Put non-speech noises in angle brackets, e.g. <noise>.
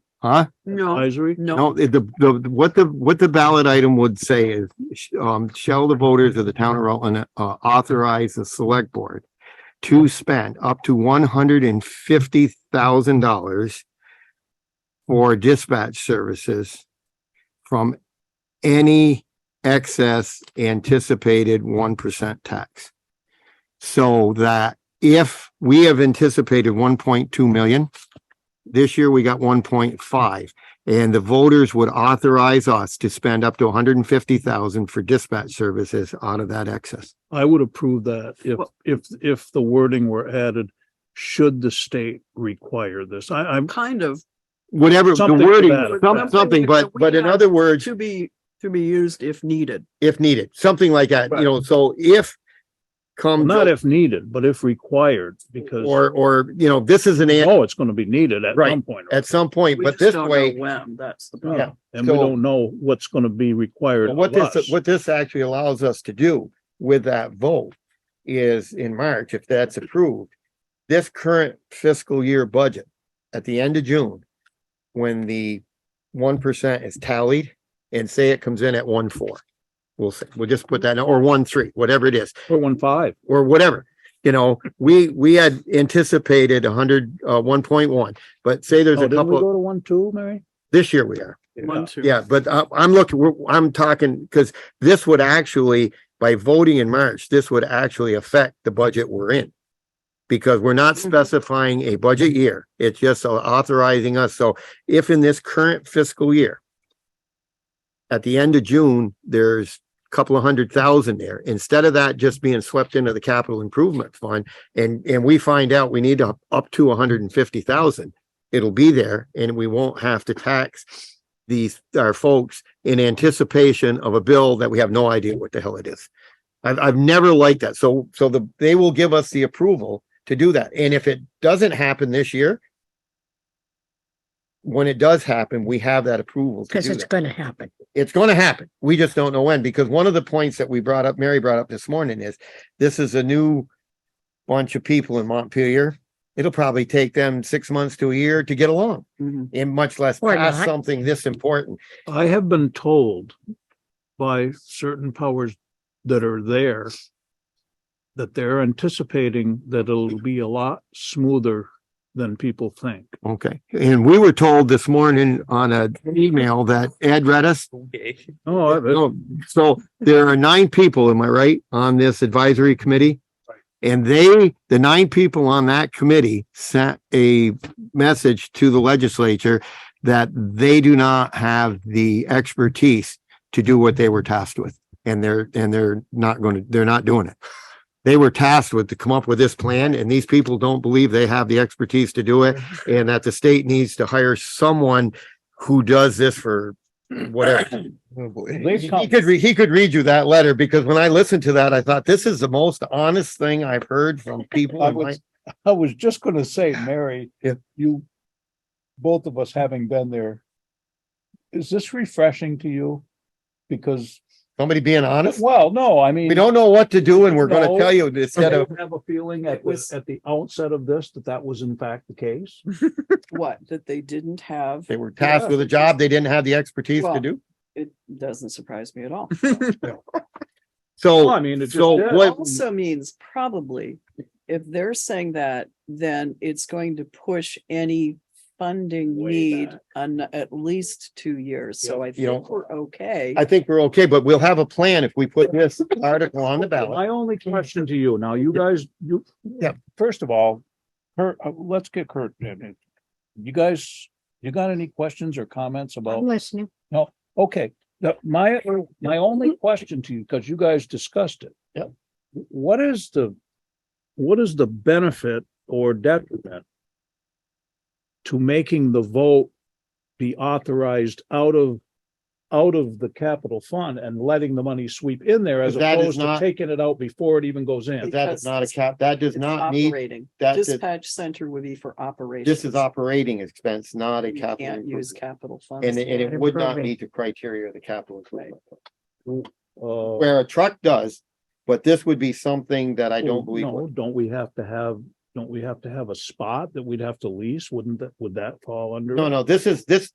Huh? No, advisory? no, No, the, the, the- what the, what the ballot item would say is, sh- um, shall the voters of the town of Rutland uh, authorize the select board to spend up to one hundred and fifty thousand dollars for dispatch services from any excess anticipated one percent tax. So that if we have anticipated one point two million, this year we got one point five. And the voters would authorize us to spend up to hundred and fifty thousand for dispatch services out of that excess. I would approve that if, Well- if, if the wording were added, should the state require this? I, I'm, kind of Whatever the Something to wording, that effect. some- something, but, but in other words, to be, to be used if needed. if needed, something like that, you know, so if come not if needed, but if required, because, Um, or, or, you know, this is an, an- oh, it's going to be needed at Right, some point. at some point, We but just this don't know way, When, that's the Yeah, problem. And we so- don't know what's going to be required Well, What of us. this, what this actually allows us to do with that vote is in March, if that's approved, this current fiscal year budget at the end of June, when the one percent is tallied and say it comes in at one four. We'll say, we'll just put that, in, or one three, whatever it is, Four one five. or whatever. You know, we, we had anticipated a hundred, uh, one point one, but say there's Oh, a didn't we couple, go to one, two, Mary? this year we are. One, two. Yeah, but I, I'm looking, we're, I'm talking, because this would actually, by voting in March, this would actually affect the budget we're in. Because we're not Mhm. specifying a budget year. It's just authorizing us. So if in this current fiscal year, at the end of June, there's a couple of hundred thousand there. Instead of that just being swept into the capital improvement fund and, and we find out we need up, up to hundred and fifty thousand, it'll be there and we won't have to tax these, our folks in anticipation of a bill that we have no idea what the hell it is. I've, I've never liked that. So, so the, they will give us the approval to do that. And if it doesn't happen this year, when it does happen, we have that approval to Because do it's that gonna happen. it's going to happen. We just don't know when, because one of the points that we brought up, Mary brought up this morning is this is a new bunch of people in Montpelier. It'll probably take them six months to a year to get along Mm-hmm. Mhm. and much less Or pass not. something this important. I have been told by certain powers that are there that they're anticipating that it'll be a lot smoother than people think. Okay. And we were told this morning on an email that Ed read us. Oh, I- No, So there are nine people, am I right, on this advisory committee? And they, the nine people on that committee sent a message to the legislature that they do not have the expertise to do what they were tasked with. And they're, and they're not going to, they're not doing it. They were tasked with to come up with this plan and these people don't believe they have the expertise to <laughs> do it and that the state needs to hire someone who does this for <coughs> whatever. Oh, He he could, re- he could read you that letter because when I listened to that, I thought this is the most honest thing I've heard from <laughs> people. I in my- was, I was just gonna <sighs> say, Mary. Yeah. You, both of us having been there, is this refreshing to you? Because, <laughs> Somebody being honest. well, no, I mean. We don't know what to do and we're gonna No. tell you <laughs> instead of, you Have a feeling at It the, was- at the outset of this that that was in fact the case? What, that they didn't have, they were tasked with a job they didn't have the expertise to Well, do. It doesn't surprise me at all. Well, I So, mean, it just so did. It what, Also means probably, if they're saying that, then it's going to push any funding Way need back. on at least two years, so I you think know, we're okay. I think we're okay, but we'll have a plan if we put this article <laughs> on the ballot. My only question to you, now you guys, you, First of all, Kurt, uh, let's get Kurt. in. in. You guys, you got any questions or comments I'm about, listening. okay, the- my, my Mm-hmm. only question to you, because you guys discussed it. Yep. What is the what is the benefit or detriment to making the vote be authorized out of, out of the capital fund and letting the money sweep in there as But that is opposed to not- taking it out before it even goes in? But That is not a cap, that does It's not need, operating. that is- Dispatch center would be for operations. this is operating expense, not a You capital. Can't use improvement. capital funds. And it, and it would not Improvement. meet the criteria of the capital improvement. Uh, Where a truck does, but this would be something that I Well, don't believe. Oh, No, would. don't we have to have, don't we have to have a spot that we'd have to lease? Wouldn't that, would that fall under? No, it? no, this is, this,